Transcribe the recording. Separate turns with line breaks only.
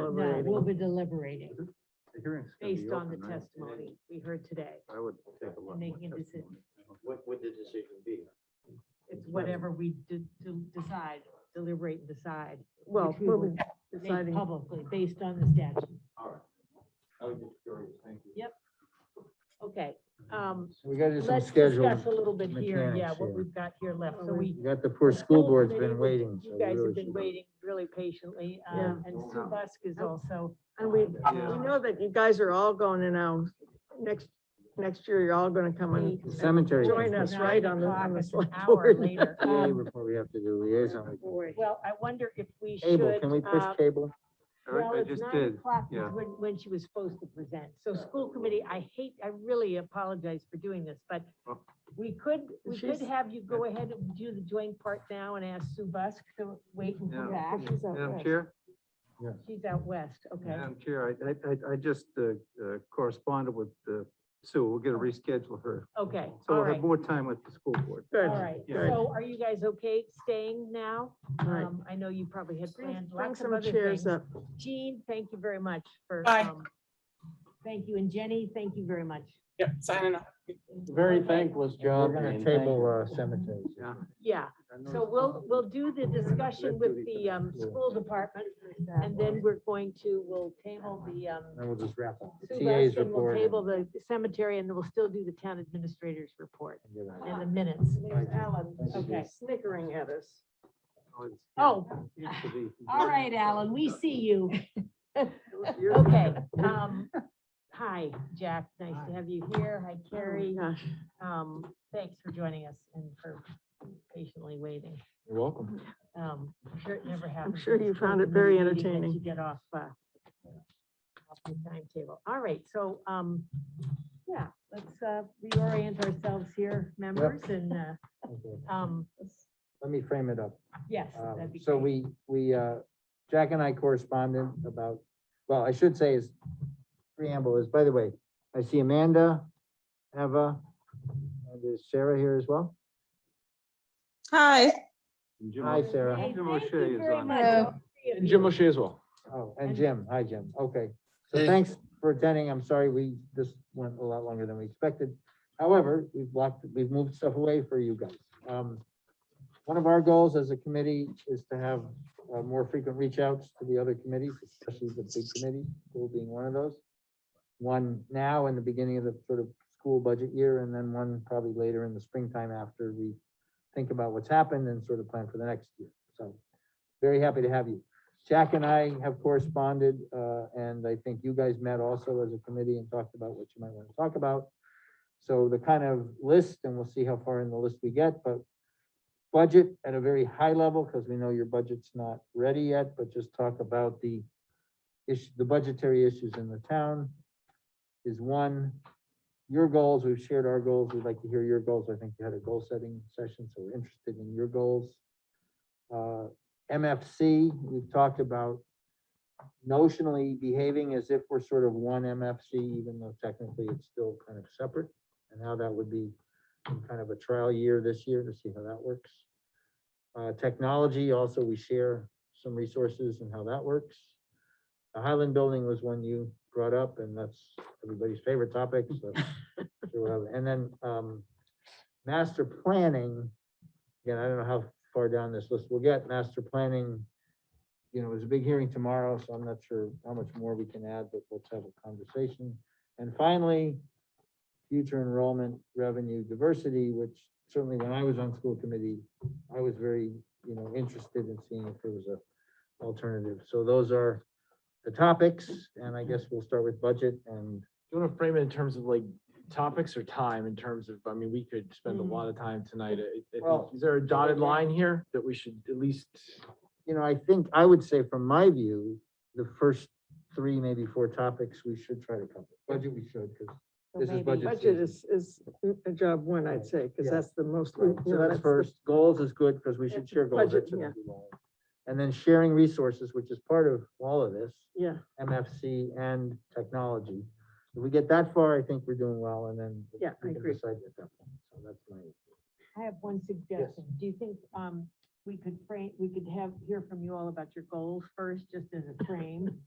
No, we'll
deliberating
be deliberating
The hearing's gonna be
based on the
open, right?
testimony we heard today.
I would take a look.
and making a decision.
What would the decision be?
It's whatever we de- de- decide, deliberate and decide.
Well,
which we
we'll
will
be
make
deciding,
publicly, based on the statute.
All right. I was just curious, thank you.
Yep.
okay, um,
We gotta do some
let's
schedule.
discuss a little bit here, yeah,
mechanics
what
here.
we've got here left, so
We-
we.
You got the poor school board's been waiting. so
You
we
guys
really
have been
should-
waiting
waiting really patiently,
um,
and
Yeah.
Sue Busk is also.
And we,
Yeah.
we know that you guys are all going in, um, next, next year, you're all gonna come and
The Cemetery.
join us, right, on the, on the
It's an
select
hour
board.
later.
Yeah,
Um,
report we have to do liaison.
Well, I wonder if we should.
Cable, can we push
uh,
cable?
Well,
I
it's
just
nine
did.
o'clock is
yeah.
when, when she was supposed to present. So school committee, I hate, I really apologize for doing this, but
Oh.
we could, we could
She's-
have you go ahead and do the joint part now and ask Sue Busk to wait and come
Yeah.
back.
She's out
Madam
west.
Chair,
She's out west, Oh, okay.
Madam Chair, I, I- I, I just uh, uh, corresponded with uh, Sue. We're gonna reschedule her.
Okay,
So
all
we'll
right,
have more time with the school board.
Good.
all right.
Yeah.
So are you guys okay staying now?
Right.
Um, I know you probably had
Bring
planned
bring
lots of
some
other
chairs
things.
up. Oh,
Jean, thank you very much for.
Bye.
um, Thank you, and Jenny, thank you very much.
Yeah, signing off.
Very thankless
We're
job.
gonna
Jane, thank
table
you.
uh, cemeteries.
Yeah.
Yeah, so we'll, we'll do the discussion with the, um, school department, and then we're going to, we'll table the, um,
Then we'll just wrap up.
Sue
TA's
Busk, and we'll
report.
table the cemetery, and then we'll still do the town administrator's report in the minutes.
There's Alan,
Okay.
snickering at us.
Oh,
Seems to be-
all right, Alan, we see you.
You're-
Okay, um, hi, Jack, nice to have you here. Hi, Carrie.
Yeah.
Um, thanks for joining us and for patiently waiting.
You're welcome.
Um, I'm sure it never happens.
sure
in a
you
school
found it
committee
very
meeting that
entertaining.
You get off, uh, off the timetable. All right, so, um, yeah, let's, uh, reorient ourselves here, members, and, uh,
Okay.
um,
Let me frame it up.
yes.
Um,
that'd be
So
great.
we, we, uh, Jack and I corresponded about, well, I should say is preamble is, by the way, I see Amanda, Eva, and is Sarah here as well?
Hi.
And Jim
Hi,
O'Shea-
Sarah.
Hey,
Jim
thank
O'Shea
you
is
very
on.
much,
Hello.
all three of
And
you.
Jim O'Shea as well.
Oh, and Jim. Hi, Jim. Okay. So
Hey.
thanks for attending. I'm sorry we, this went a lot longer than we expected. However, we've blocked, we've moved stuff away for you guys. Um, One of our goals as a committee is to have uh, more frequent reach outs to the other committees, especially the big committee, school being one of those. One now in the beginning of the sort of school budget year and then one probably later in the springtime after we think about what's happened and sort of plan for the next year. So very happy to have you. Jack and I have corresponded, uh, and I think you guys met also as a committee and talked about what you might want to talk about. So the kind of list, and we'll see how far in the list we get, but budget at a very high level, because we know your budget's not ready yet, but just talk about the issue, the budgetary issues in the town is one. Your goals, we've shared our goals. We'd like to hear your goals. I think you had a goal-setting session, so we're interested in your goals. Uh, MFC, we've talked about notionally behaving as if we're sort of one MFC, even though technically it's still kind of separate, and how that would be in kind of a trial year this year to see how that works. Uh, technology, also, we share some resources and how that works. The Highland Building was one you brought up, and that's everybody's favorite topic, so. sure we'll have- And then, um, master planning, again, I don't know how far down this list we'll get, master planning. You know, there's a big hearing tomorrow, so I'm not sure how much more we can add, but let's have a conversation. And finally, future enrollment revenue diversity, which certainly when I was on school committee, I was very, you know, interested in seeing if there was a alternative. So those are the topics, and I guess we'll start with budget and
Do you want to frame it in terms of like topics or time in terms of, I mean, we could spend a
Mm.
lot of time tonight. I- I think-
Well-
Is there a dotted line here that we should at least?
you know, I think, I would say from my view, the first three, maybe four topics we should try to cover. Budget we should, because
So
this is
maybe-
budget
Budget is, is a job one, I'd say, because
Yeah.
that's the most.
Right,
you
So
know,
that's
the-
first, goals is good, because we should share goals.
Budget,
that shouldn't
yeah.
be long. And then sharing resources, which is part of all of this,
Yeah,
MFC and technology. If we get that far, I think we're doing well, and then.
Yeah,
we
I
can
agree.
decide at that point. So that's my,
I have one suggestion. Do you think, um, we could frame, we could have, hear from you all about your goals first, just as a frame.